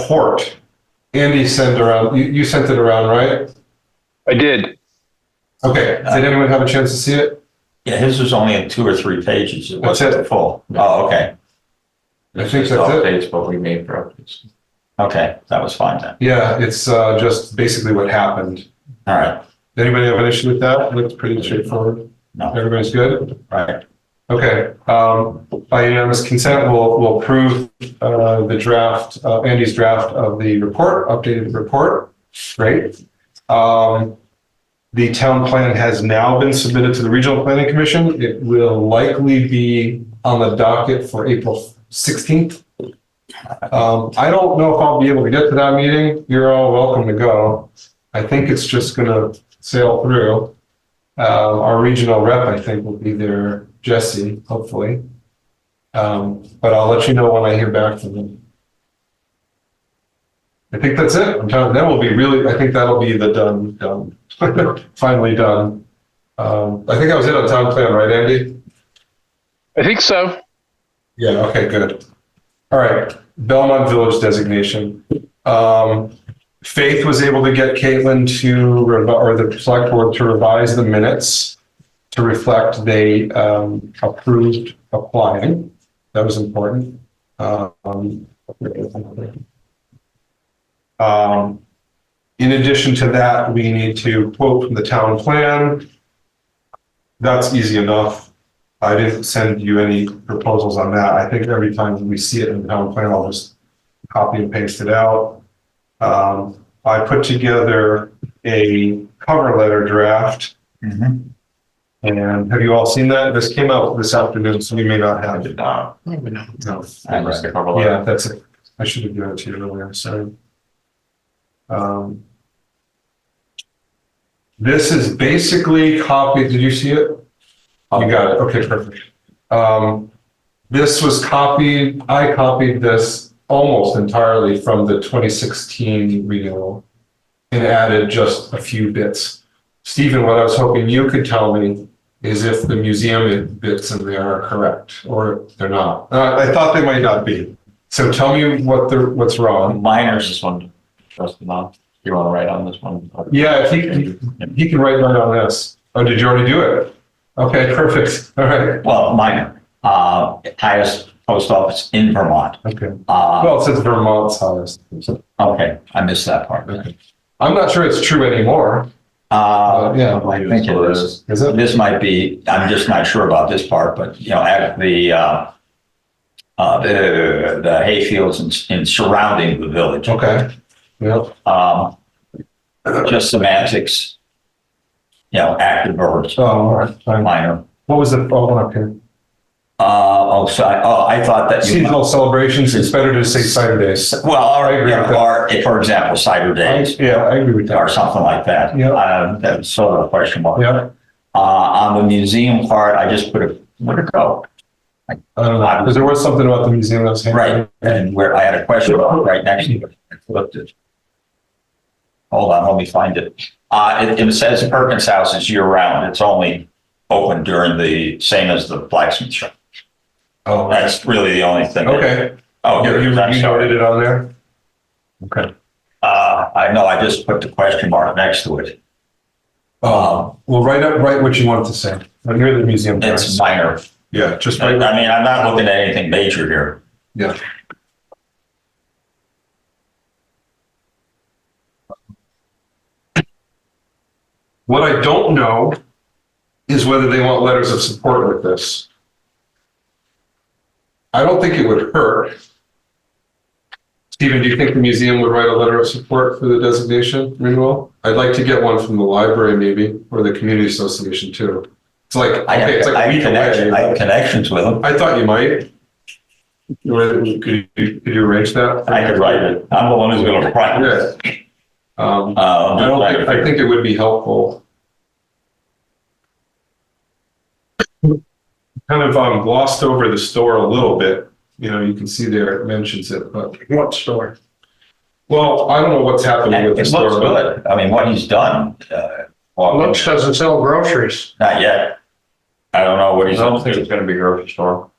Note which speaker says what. Speaker 1: report. Andy sent around, you, you sent it around, right?
Speaker 2: I did.
Speaker 1: Okay, did anyone have a chance to see it?
Speaker 3: Yeah, his was only in two or three pages. It
Speaker 1: That's
Speaker 3: wasn't full. Oh, okay.
Speaker 1: I think that's it.
Speaker 4: Updates, but we made for updates.
Speaker 3: Okay, that was fine then.
Speaker 1: Yeah, it's, uh, just basically what happened.
Speaker 3: All right,
Speaker 1: Anybody have an issue with that? Looks pretty straightforward.
Speaker 3: no,
Speaker 1: Everybody's good?
Speaker 3: right.
Speaker 1: Okay, um, by unanimous consent, we'll, we'll approve, uh, the draft, uh, Andy's draft of the report, updated report. Great. Um, the town plan has now been submitted to the Regional Planning Commission. It will likely be on the docket for April sixteenth. Um, I don't know if I'll be able to get to that meeting. You're all welcome to go. I think it's just gonna sail through. Uh, our regional rep, I think, will be there, Jesse, hopefully. Um, but I'll let you know when I hear back from them. I think that's it. I'm telling, that will be really, I think that'll be the done, done, finally done. Um, I think I was it on town plan, right, Andy?
Speaker 2: I think so.
Speaker 1: Yeah, okay, good. All right, Belmont Village designation. Um, Faith was able to get Caitlin to, revi- or the select board to revise the minutes to reflect they um, approved applying. That was important. Um, um, In addition to that, we need to quote from the town plan. That's easy enough. I didn't send you any proposals on that. I think every time we see it in the town plan, I'll just copy and paste it out. Um, I put together a cover letter draft
Speaker 3: Mhm.
Speaker 1: Mm-hmm. and have you all seen that? This came out this afternoon, so you may not
Speaker 4: I
Speaker 1: have
Speaker 4: did
Speaker 1: it.
Speaker 4: not.
Speaker 1: No.
Speaker 4: I just covered it.
Speaker 1: Yeah, that's it. I should have given it to you earlier, sorry. Um, This is basically copied, did you see it? You got it, okay, perfect. Um, This was copied, I copied this almost entirely from the 2016 renewal and added just a few bits. Stephen, what I was hoping you could tell me is if the museum bits in there are correct or if they're not. Uh, I thought they might not be. So tell me what the, what's wrong.
Speaker 4: Miners, this one, trust not. You want to write on this one?
Speaker 1: Yeah, if he, he can write right on this. Oh, did you already do it? Okay, perfect. All right.
Speaker 3: Well, minor, uh, highest post office in Vermont.
Speaker 1: Okay.
Speaker 3: Uh,
Speaker 1: Well, it says Vermont's highest.
Speaker 3: okay, I missed that part.
Speaker 1: Okay. I'm not sure it's true anymore.
Speaker 3: Uh,
Speaker 1: yeah.
Speaker 3: I think it is.
Speaker 1: Is it?
Speaker 3: This might be, I'm just not sure about this part, but you know, at the, uh, uh, the, the hayfields and, and surrounding the village.
Speaker 1: Okay. Yep.
Speaker 3: Um, just semantics. You know, active verbs,
Speaker 1: Oh, all right. Fine.
Speaker 3: minor.
Speaker 1: What was the, oh, one up here?
Speaker 3: Uh, oh, so I, oh, I thought that you.
Speaker 1: Seasonal celebrations, it's better to say Saturdays.
Speaker 3: Well,
Speaker 1: I
Speaker 3: all right,
Speaker 1: agree
Speaker 3: you know,
Speaker 1: with that.
Speaker 3: or, if, for example, cider days
Speaker 1: Yeah, I agree with
Speaker 3: or
Speaker 1: that.
Speaker 3: something like that.
Speaker 1: Yeah.
Speaker 3: Uh, that was sort of a question mark.
Speaker 1: Yeah,
Speaker 3: Uh, on the museum part, I just put a, where'd it go?
Speaker 1: I don't know, because there was something about the museum that was. hanging
Speaker 3: Right, and where I had a question about right next to it, I flipped it. Hold on, let me find it. Uh, it, it says Perkins House is year round. It's only open during the, same as the blacksmith shop.
Speaker 1: Oh,
Speaker 3: That's really the only thing.
Speaker 1: okay.
Speaker 3: Oh,
Speaker 1: You,
Speaker 3: here,
Speaker 1: you
Speaker 3: it is. I'm
Speaker 1: you noted
Speaker 3: sorry.
Speaker 1: it on there? Okay.
Speaker 3: Uh, I know, I just put the question mark next to it.
Speaker 1: Um, well, write up, write what you wanted to say. But You're the museum
Speaker 3: It's
Speaker 1: guys.
Speaker 3: minor.
Speaker 1: Yeah, just
Speaker 3: I
Speaker 1: write.
Speaker 3: mean, I'm not looking at anything major here.
Speaker 1: Yeah. What I don't know is whether they want letters of support with this. I don't think it would hurt. Stephen, do you think the museum would write a letter of support for the designation renewal? I'd like to get one from the library maybe, or the community association too. It's like,
Speaker 3: I have,
Speaker 1: okay, it's
Speaker 3: I
Speaker 1: like a
Speaker 3: have
Speaker 1: week away.
Speaker 3: connections, I have connections with them.
Speaker 1: I thought you might. Or Could you, could you arrange that?
Speaker 3: I could write it. I'm the one who's gonna write it.
Speaker 1: Yeah. Um,
Speaker 3: Uh,
Speaker 1: I don't think, I think it would be helpful. Kind of um, glossed over the store a little bit, you know, you can see there it mentions it, but. What store? Well, I don't know what's happening
Speaker 3: It
Speaker 1: with the
Speaker 3: looks
Speaker 1: store. but-
Speaker 3: good. I mean, what he's done, uh, well,
Speaker 5: Lux doesn't sell groceries.
Speaker 3: not yet. I don't know what
Speaker 4: I
Speaker 3: he's
Speaker 4: don't
Speaker 3: up
Speaker 4: think it's
Speaker 3: to.
Speaker 4: going to be grocery store.